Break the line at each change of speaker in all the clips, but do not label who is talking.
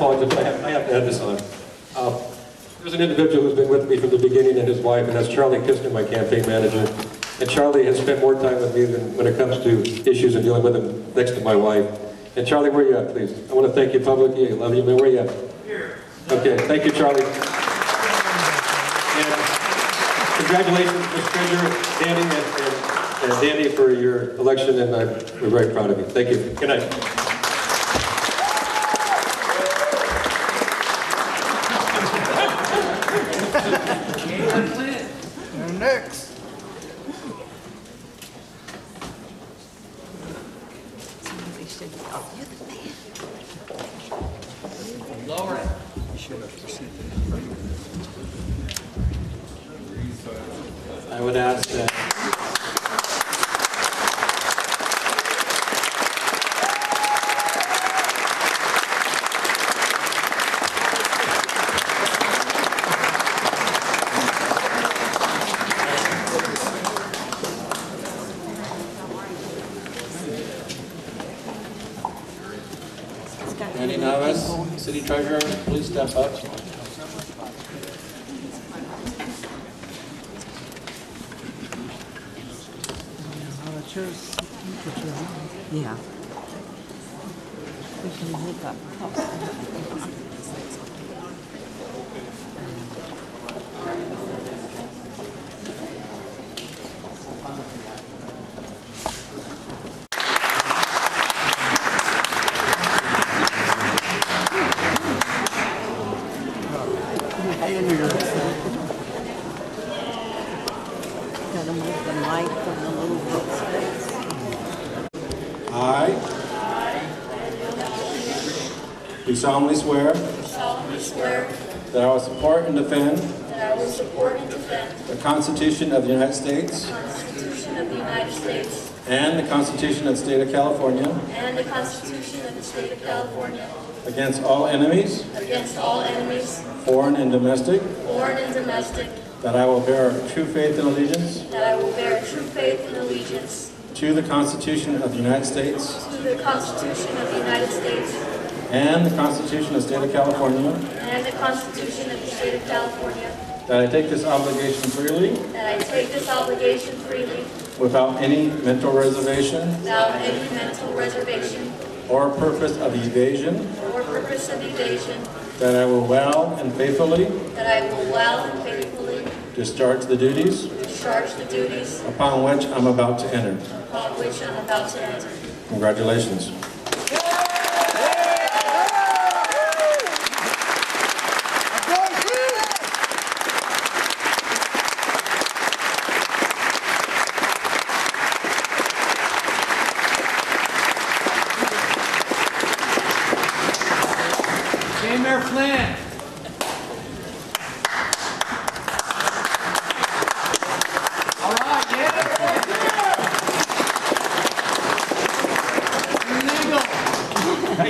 apologize, I have, I have to add this on. Uh, There's an individual who's been with me from the beginning, and his wife, and that's Charlie Kistner, my campaign manager. And Charlie has spent more time with me than when it comes to issues and dealing with them next to my wife. And Charlie, where you at, please? I want to thank you publicly, I love you, man, where you at? Okay, thank you, Charlie. And Congratulations, Mr. Treasurer, Danny, and- and and Danny for your election, and I'm, we're very proud of you. Thank you. Good night.
And next.
I would ask that. Randy Navas, City Treasurer, please step up.
Yeah. We can make up. Gotta move the mic from the little book's face.
I do solemnly swear
solemnly swear
that I will support and defend
that I will support and defend
the Constitution of the United States
the Constitution of the United States
and the Constitution of the State of California
and the Constitution of the State of California
against all enemies,
against all enemies,
foreign and domestic,
foreign and domestic,
that I will bear true faith and allegiance
that I will bear true faith and allegiance
to the Constitution of the United States
to the Constitution of the United States
and the Constitution of the State of California,
and the Constitution of the State of California,
that I take this obligation freely
that I take this obligation freely
without any mental reservation
without any mental reservation
or purpose of evasion,
or purpose of evasion,
that I will well and faithfully
that I will well and faithfully
discharge the duties
discharge the duties
upon which I'm about to enter.
upon which I'm about to enter.
Congratulations.
J. Mayor Flynn. All right, yeah. Illegal.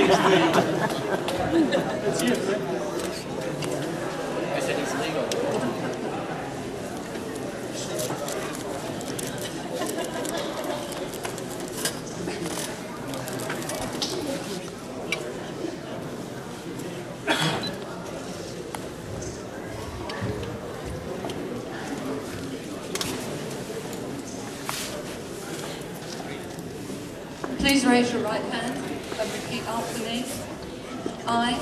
I said it's legal.
Please raise your right hand and repeat after me. I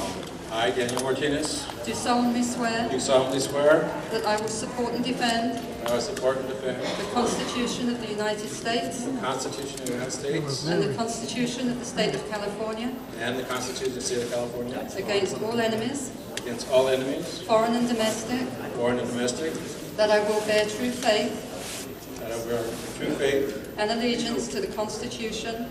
I, Daniel Martinez,
do solemnly swear
do solemnly swear
that I will support and defend
that I will support and defend
the Constitution of the United States
the Constitution of the United States
and the Constitution of the State of California
and the Constitution of the State of California
against all enemies,
against all enemies,
foreign and domestic,
foreign and domestic,
that I will bear true faith
that I will bear true faith
and allegiance to the Constitution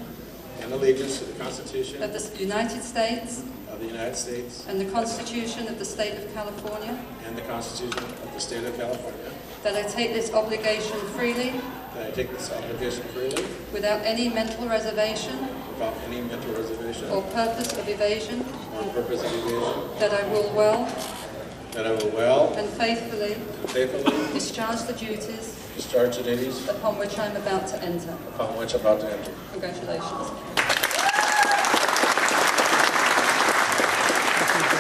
and allegiance to the Constitution
of the United States
of the United States
and the Constitution of the State of California,
and the Constitution of the State of California,
that I take this obligation freely
that I take this obligation freely
without any mental reservation
without any mental reservation
or
or
purpose of evasion,
purpose of evasion,
that I will well
that I will well
and faithfully
and faithfully
discharge the duties
discharge the duties
upon which I am about to enter.
upon which I'm about to enter.
Congratulations.